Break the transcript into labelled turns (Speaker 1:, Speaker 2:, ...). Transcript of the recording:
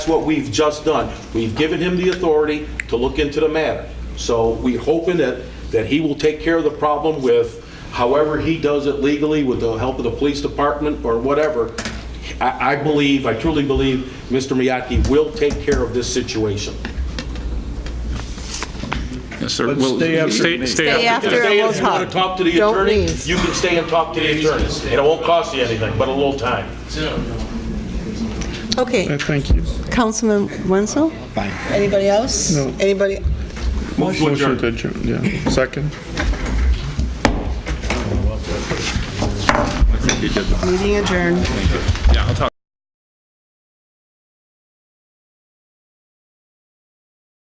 Speaker 1: That's what we've just done. We've given him the authority to look into the matter. So we're hoping that, that he will take care of the problem with however he does it legally, with the help of the police department or whatever. I, I believe, I truly believe, Mr. Miyake will take care of this situation.
Speaker 2: Yes, sir.
Speaker 3: But
Speaker 2: Well,
Speaker 3: stay after
Speaker 2: Stay stay
Speaker 3: me.
Speaker 4: Stay
Speaker 2: after.
Speaker 4: after.
Speaker 2: that.
Speaker 1: Stay,
Speaker 4: we'll
Speaker 1: if you want to
Speaker 4: talk.
Speaker 1: talk to the
Speaker 4: Don't
Speaker 1: attorney,
Speaker 4: leave.
Speaker 1: you can stay and talk to the attorney. It won't cost you anything, but a little time.
Speaker 4: Okay,
Speaker 3: Thank you.
Speaker 4: Councilman Wenzel? Fine. Anybody else?
Speaker 3: No.
Speaker 4: Anybody?
Speaker 1: Move to adjourn.
Speaker 3: Motion to adjourn, yeah. Second.
Speaker 4: Meeting adjourned.
Speaker 2: Yeah, I'll talk.